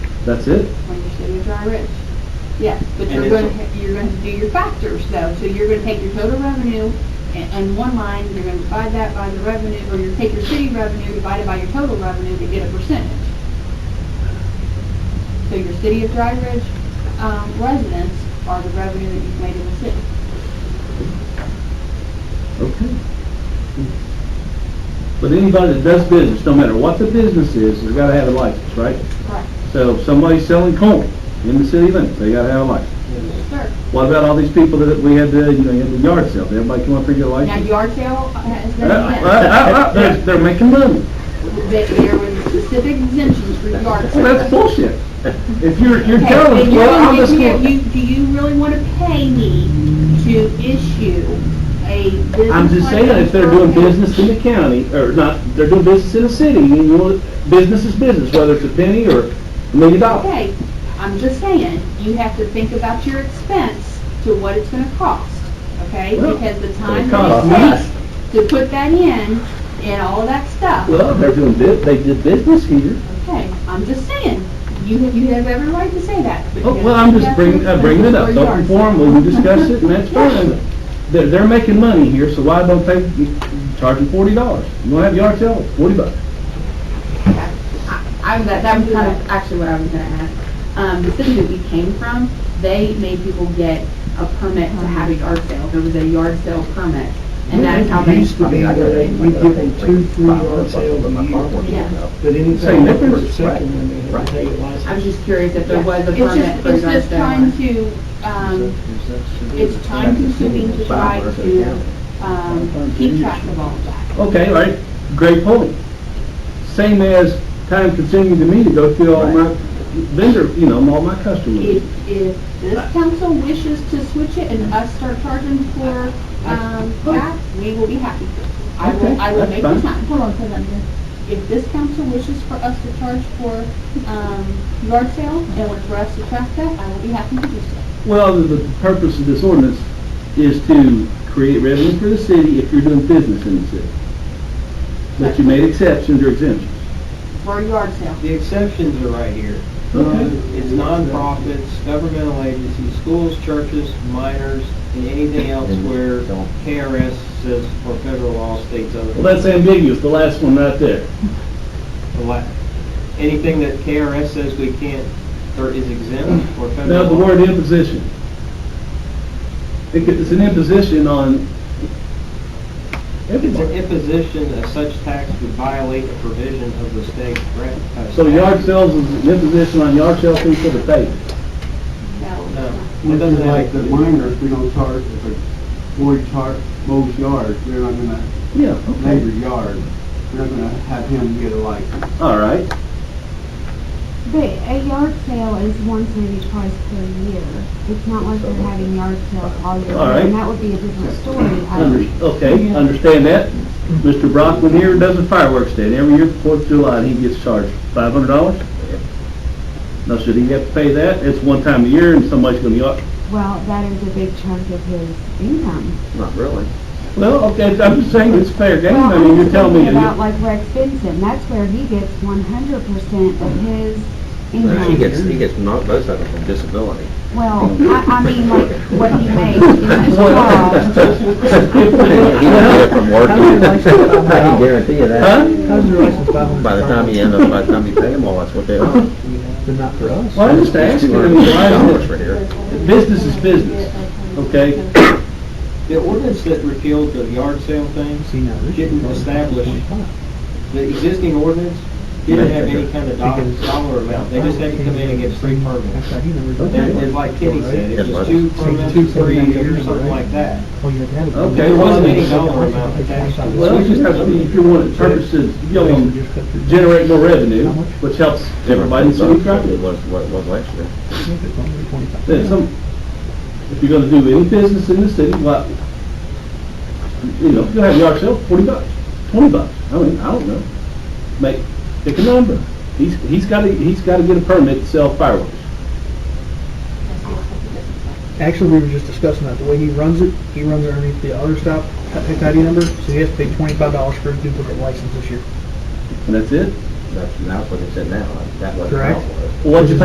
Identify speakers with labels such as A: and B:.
A: That's it?
B: when you send it to our rich. Yes, but
C: And
B: you're
C: it's-
B: gonna, ha- you're gonna do your factors though, so you're gonna take your total revenue and, and one line, you're gonna divide that by the revenue, or you take your city revenue divided by your total revenue to get a percentage. So your city of Dry Ridge, um, residents are the revenue that you've made in the city.
A: Okay. But anybody that does business, no matter what the business is, has gotta have a license, right?
B: Right.
A: So if somebody's selling corn in the city limits, they gotta have a license.
B: Yes, sir.
A: What about all these people that we had the, you know, you had the yard sale, did everybody come up and get a
B: Now
A: license?
B: yard sale has
A: Uh,
B: been,
A: uh, uh, uh, They're, they're making money.
B: they- there were specific exemptions for yard sales.
A: Well, that's bullshit. If you're, you're
B: Okay,
A: telling us,
B: then you're
A: well, I'm
B: gonna
A: just.
B: give me a-
A: gonna-
B: you- Do you really want to pay me to issue a business?
A: I'm just saying, if they're doing business in the county, or not, they're doing business in the city, and you want, business is business, whether it's a penny or a million dollars.
B: Okay, I'm just saying, you have to think about your expense to what it's going to cost, okay?
A: Well,
B: Because the time
A: costs
B: that it takes to put that in and all that stuff,
A: Well, they're doing, bu- they did business here.
B: okay? I'm just saying, you have, you have every right to say that. but
A: Oh,
B: you
A: Well,
B: have
A: I'm
B: to
A: just
B: have
A: bringing,
B: your
A: I'm bringing it up,
B: expenses for
A: don't
B: yard
A: inform, we
B: sale.
A: can discuss it, and that's fine. They're, they're making money here, so why don't they charge them forty dollars? You wanna have yard sale, forty bucks.
D: I'm, that, that was kind of actually what I was gonna ask. Um, the city that we came from, they made people get a permit to have a yard sale. There was a yard sale permit, and that's how they.
E: Used to be that we'd give them two, three yard sales a year,
D: Yeah,
E: but anything over a second, then they had to take a
D: I was
E: license.
D: just curious if there
B: Yeah.
D: was a
B: It's just-
D: permit for a
B: It's
D: yard
B: just
D: sale.
B: trying to, um, it's time consuming to try to, um, keep track of all of that.
A: Okay, all right, great point. Same as time consuming to me to go through all my vendor, you know, all my customers.
B: If, if this council wishes to switch it and us start charging for, um, that, we will be happy. I
A: Okay,
B: will, I will
A: that's
B: make
A: fine.
B: the time. Hold on, hold on here. If this council wishes for us to charge for, um, yard sale and for us to track that, I will be happy to do so.
A: Well, the, the purpose of this ordinance is to create revenue for the city if you're doing business in the city. But you made exceptions or exemptions.
B: For a yard sale.
C: The exceptions are right here. Uh,
A: Okay.
C: It's nonprofits, governmental agencies, schools, churches, minors, and anything else where KRS says or federal law states
A: Well,
C: otherwise.
A: that's ambiguous, the last one right there.
C: The la- Anything that KRS says we can't, or is exempt
A: Now,
C: or
A: the
C: federal law.
A: word imposition. It- It's an imposition on
C: It's an
A: everybody.
C: imposition of such tax would violate a provision of the state. rec- uh,
A: So yard
C: statute.
A: sales is an imposition on yard sale people to pay.
C: No, it
F: This
C: doesn't
F: is
C: have-
F: like the minors, we don't charge, if a boy char mows yards, we're not gonna,
A: Yeah, okay,
F: neighbor yard, we're not gonna have him get a license.
A: all right.
G: But a yard sale is once maybe twice per year. It's not like they're having yard sales all year.
A: All right.
G: And that would be a different story. I
A: Under- Okay, understand that. Mr. Brockman here does a fireworks day, and every year, Fourth of July, he gets charged five hundred dollars. Now, should he have to pay that? It's one time a year, and somebody's gonna be, up-
G: Well, that is a big chunk of his income.
E: Not really.
A: well, okay, I'm just saying it's fair game,
G: Well,
A: I
G: I'm
A: mean, you're
G: just
A: telling
G: thinking
A: me.
G: About like Rex Benson, that's where he gets one hundred percent of his
E: He gets,
G: income.
E: he gets not both of them from disability.
G: Well, I, I mean, like
A: um,
G: what he makes in his job.
E: He doesn't get it from work. I can
A: Huh?
E: guarantee you that. By the time you end up, by the time you pay them all, that's what they are.
F: But not for us.
A: Well, I'm just asking, I mean, why
E: dollars
A: is
E: for here.
A: it, business is business, okay?
C: The ordinance that repealed the yard sale thing didn't establish, the existing ordinance didn't have any kind of dollar, dollar amount. They just had to come in and get three permits. And it's like Kenny said, it was two permits, three years, something like that.
A: Oh, Okay,
C: There
A: well,
C: wasn't any dollar amount attached to it.
A: Well, it just has to be, if you want it purposes, you know, generate more revenue, which helps everybody in the city of Crawford.
E: It was, what it was last year.
A: There's some, if you're gonna do any business in the city, well, you know, you have yard sale, forty bucks, twenty bucks, I mean, I don't know. Make, pick a number. He's, he's gotta, he's gotta get a permit to sell fireworks.
H: Actually, we were just discussing that, the way he runs it, he runs it underneath the other stop, pick ID number, so he has to pay twenty-five dollars for his duplicate license this year.
A: And that's it?
E: That's, that's what it's in now. That wasn't.
H: Correct.
E: how it was.
A: Well, What'd you